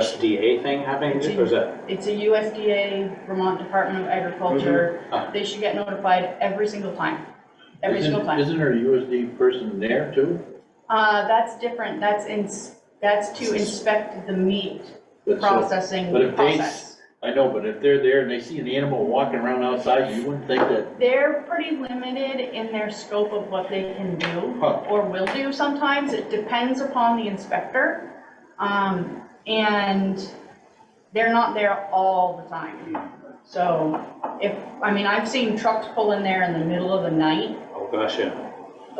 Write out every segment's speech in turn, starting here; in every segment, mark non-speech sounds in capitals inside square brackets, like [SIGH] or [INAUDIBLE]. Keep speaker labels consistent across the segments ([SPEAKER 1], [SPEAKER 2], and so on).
[SPEAKER 1] USDA thing happening,
[SPEAKER 2] It's
[SPEAKER 1] or is that?
[SPEAKER 2] It's a USDA Vermont Department of Agriculture.
[SPEAKER 3] Mm-hmm.
[SPEAKER 1] Ah.
[SPEAKER 2] They should get notified every single time, every
[SPEAKER 3] Isn't-
[SPEAKER 2] single time.
[SPEAKER 3] Isn't there a USD person there too?
[SPEAKER 2] Uh, that's different, that's ins, that's to inspect the meat
[SPEAKER 3] But so-
[SPEAKER 2] processing
[SPEAKER 3] But if they,
[SPEAKER 2] process.
[SPEAKER 3] I know, but if they're there and they see an animal walking around outside, you wouldn't think that,
[SPEAKER 2] They're pretty limited in their scope of what they can do
[SPEAKER 3] Huh.
[SPEAKER 2] or will do sometimes, it depends upon the inspector. Um, and they're not there all the time. So if, I mean, I've seen trucks pull in there in the middle of the night,
[SPEAKER 1] Oh, gosh, yeah.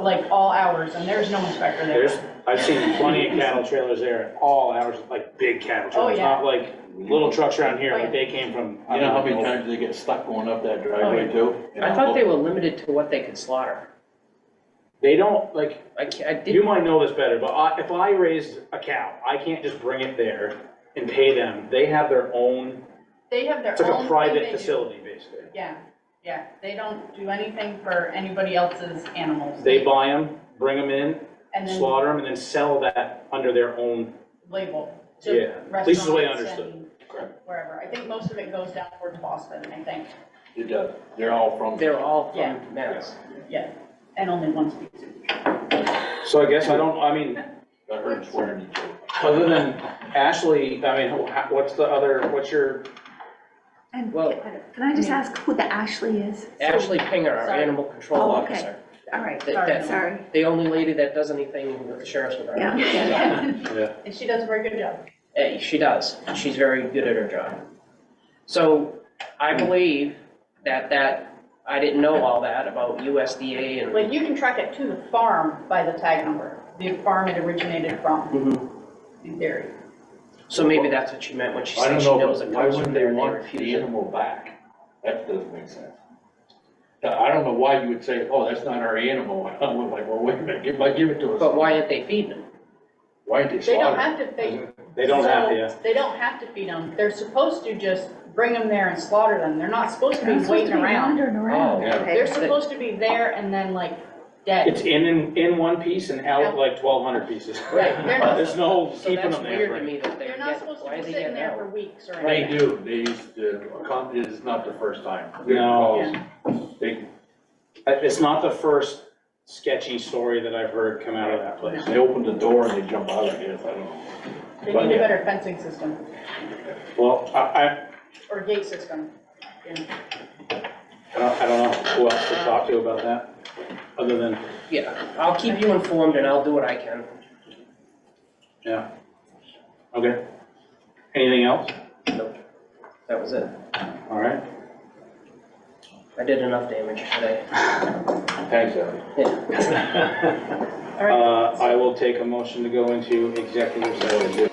[SPEAKER 2] like all hours, and there's no inspector there.
[SPEAKER 1] There's, I've seen plenty of cattle trailers there at all hours, like big cattle
[SPEAKER 2] Oh,
[SPEAKER 1] trailers,
[SPEAKER 2] yeah. Oh,
[SPEAKER 1] not like little trucks around here, like
[SPEAKER 2] Right.
[SPEAKER 1] they came from.
[SPEAKER 3] you know how many times they get stuck going up that driveway too?
[SPEAKER 4] Oh, I thought they were limited to what they could slaughter.
[SPEAKER 1] They don't, like,
[SPEAKER 4] I ca- I
[SPEAKER 1] you
[SPEAKER 4] didn't,
[SPEAKER 1] might know this better, but I, if I raised a cow, I can't just bring it there and pay them. They have their own,
[SPEAKER 2] They have their
[SPEAKER 1] it's like
[SPEAKER 2] own
[SPEAKER 1] a
[SPEAKER 2] thing
[SPEAKER 1] private
[SPEAKER 2] they do.
[SPEAKER 1] facility, basically.
[SPEAKER 2] Yeah, yeah, they don't do anything for anybody else's animals.
[SPEAKER 1] They buy them, bring them in,
[SPEAKER 2] And then
[SPEAKER 1] slaughter them, and then sell that under their own,
[SPEAKER 2] label
[SPEAKER 1] Yeah,
[SPEAKER 2] to
[SPEAKER 1] at least the way I
[SPEAKER 2] restaurants and
[SPEAKER 1] understood.
[SPEAKER 2] wherever. I think most of it goes down towards Boston, I think,
[SPEAKER 3] It does, they're all from.
[SPEAKER 4] they're all
[SPEAKER 2] Yeah.
[SPEAKER 4] from Mass.
[SPEAKER 2] yeah, and only one species.
[SPEAKER 1] so I guess I don't, I mean,
[SPEAKER 3] I heard swearing each other.
[SPEAKER 1] other than Ashley, I mean, wha- what's the other, what's your,
[SPEAKER 5] And
[SPEAKER 4] Well-
[SPEAKER 5] can can I just ask who the Ashley is?
[SPEAKER 4] Ashley Pinger, our
[SPEAKER 2] Sorry.
[SPEAKER 4] animal control
[SPEAKER 5] Oh, okay.
[SPEAKER 4] officer,
[SPEAKER 5] All right,
[SPEAKER 4] That-
[SPEAKER 2] Sorry.
[SPEAKER 4] that's
[SPEAKER 5] sorry,
[SPEAKER 4] the only lady that does anything with the sheriff's
[SPEAKER 5] yeah,
[SPEAKER 4] department.
[SPEAKER 2] [LAUGHS]
[SPEAKER 5] yeah.
[SPEAKER 2] And
[SPEAKER 1] [LAUGHS] yeah,
[SPEAKER 2] she does a very good job.
[SPEAKER 4] Eh, She does, she's very good at her job. So
[SPEAKER 2] Hmm.
[SPEAKER 4] I believe that that, I didn't know all that about USDA and,
[SPEAKER 2] Like, you can track it to the farm by the tag number, the farm it originated from,
[SPEAKER 3] Mm-hmm.
[SPEAKER 4] Mhm.
[SPEAKER 2] in theory.
[SPEAKER 4] so maybe that's what she meant when she
[SPEAKER 3] I
[SPEAKER 4] said
[SPEAKER 3] don't
[SPEAKER 4] she
[SPEAKER 3] know,
[SPEAKER 4] knows
[SPEAKER 3] but
[SPEAKER 4] it
[SPEAKER 3] why
[SPEAKER 4] comes from
[SPEAKER 3] wouldn't they
[SPEAKER 4] there and they
[SPEAKER 3] want the
[SPEAKER 4] refuse it.
[SPEAKER 3] animal back? That doesn't make sense. I don't know why you would say, oh, that's not our animal, [LAUGHS] I'm like, well, wait a minute, if I give it to us,
[SPEAKER 4] But why aren't they feeding them?
[SPEAKER 3] why did they
[SPEAKER 2] They don't
[SPEAKER 3] slaughter?
[SPEAKER 2] have to, they,
[SPEAKER 1] they don't have to,
[SPEAKER 2] So,
[SPEAKER 1] yeah.
[SPEAKER 2] They don't have to feed them. They're supposed to just bring them there and slaughter them. They're not supposed to
[SPEAKER 5] They're
[SPEAKER 2] be
[SPEAKER 5] not supposed
[SPEAKER 2] waiting
[SPEAKER 5] to be
[SPEAKER 2] around.
[SPEAKER 5] Wandering around,
[SPEAKER 4] Oh,
[SPEAKER 3] yeah.
[SPEAKER 5] okay.
[SPEAKER 2] They're supposed to be there and then like
[SPEAKER 1] It's
[SPEAKER 2] dead.
[SPEAKER 1] in, in, in one piece and out like twelve hundred pieces.
[SPEAKER 4] Right.
[SPEAKER 2] They're not-
[SPEAKER 1] There's no
[SPEAKER 4] So
[SPEAKER 1] keeping
[SPEAKER 4] that's
[SPEAKER 1] them there.
[SPEAKER 4] weird to
[SPEAKER 1] right?
[SPEAKER 4] me that they're
[SPEAKER 2] They're not
[SPEAKER 4] getting,
[SPEAKER 2] supposed
[SPEAKER 4] why
[SPEAKER 2] to
[SPEAKER 4] are
[SPEAKER 2] be
[SPEAKER 4] they
[SPEAKER 2] sitting
[SPEAKER 4] getting
[SPEAKER 2] there
[SPEAKER 4] out?
[SPEAKER 2] for weeks or
[SPEAKER 3] They
[SPEAKER 2] anything.
[SPEAKER 3] do, they used to, it's not the first time.
[SPEAKER 1] No.
[SPEAKER 2] Yeah.
[SPEAKER 3] They,
[SPEAKER 1] Uh, It's not the first sketchy story that I've heard come out of that place.
[SPEAKER 3] they open the door and they jump out, I guess, I don't know.
[SPEAKER 2] They need a better fencing system
[SPEAKER 1] Well, I,
[SPEAKER 2] or gate system.
[SPEAKER 1] I, I don't, I don't know who else to talk to about that, other than,
[SPEAKER 4] Yeah, I'll keep you informed and I'll do what I can.
[SPEAKER 1] yeah. Okay. Anything else?
[SPEAKER 4] That was it.
[SPEAKER 1] All right. [LAUGHS]
[SPEAKER 4] I did enough damage today.
[SPEAKER 3] Thanks, Abby.
[SPEAKER 2] All
[SPEAKER 1] Uh,
[SPEAKER 2] right.
[SPEAKER 1] Um, I will take a motion to go into executive session.